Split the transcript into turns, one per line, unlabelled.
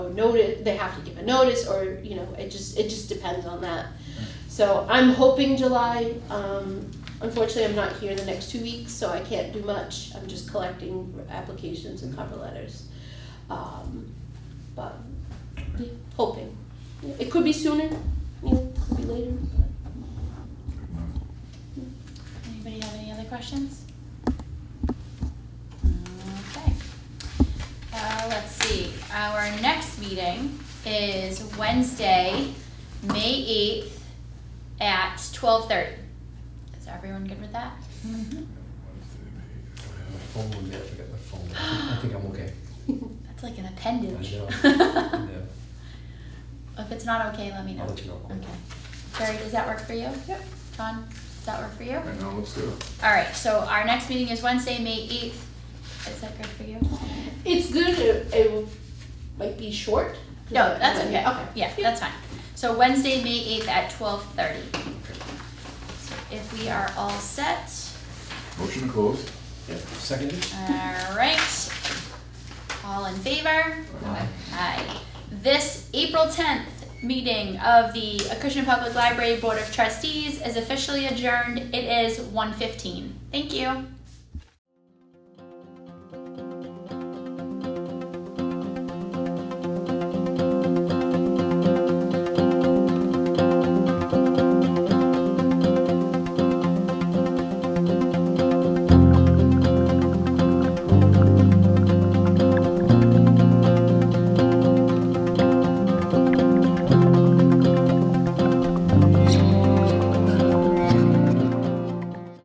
notice, they have to give a notice, or, you know, it just, it just depends on that. So I'm hoping July, um, unfortunately, I'm not here the next two weeks, so I can't do much, I'm just collecting applications and cover letters. Um, but, yeah, hoping, it could be sooner, you know, it could be later, but.
Anybody have any other questions? Okay. Uh, let's see, our next meeting is Wednesday, May eighth at twelve thirty. Is everyone good with that?
Phone with me, I forgot my phone. I think I'm okay.
That's like an appendage.
I know. Yeah.
If it's not okay, let me know.
I'll let you know.
Okay. Barry, does that work for you? Yep. John, does that work for you?
I know, let's do it.
All right, so our next meeting is Wednesday, May eighth. Is that good for you?
It's good. It, it will- might be short.
No, that's okay.
Okay.
Yeah, that's fine. So Wednesday, May eighth at twelve thirty. So if we are all set,
Motion to close.
Yeah. Seconded?
all right. All in favor?
Aye.
Aye. This April tenth meeting of the Acushnet Public Library Board of Trustees is officially adjourned. It is one fifteen. Thank you.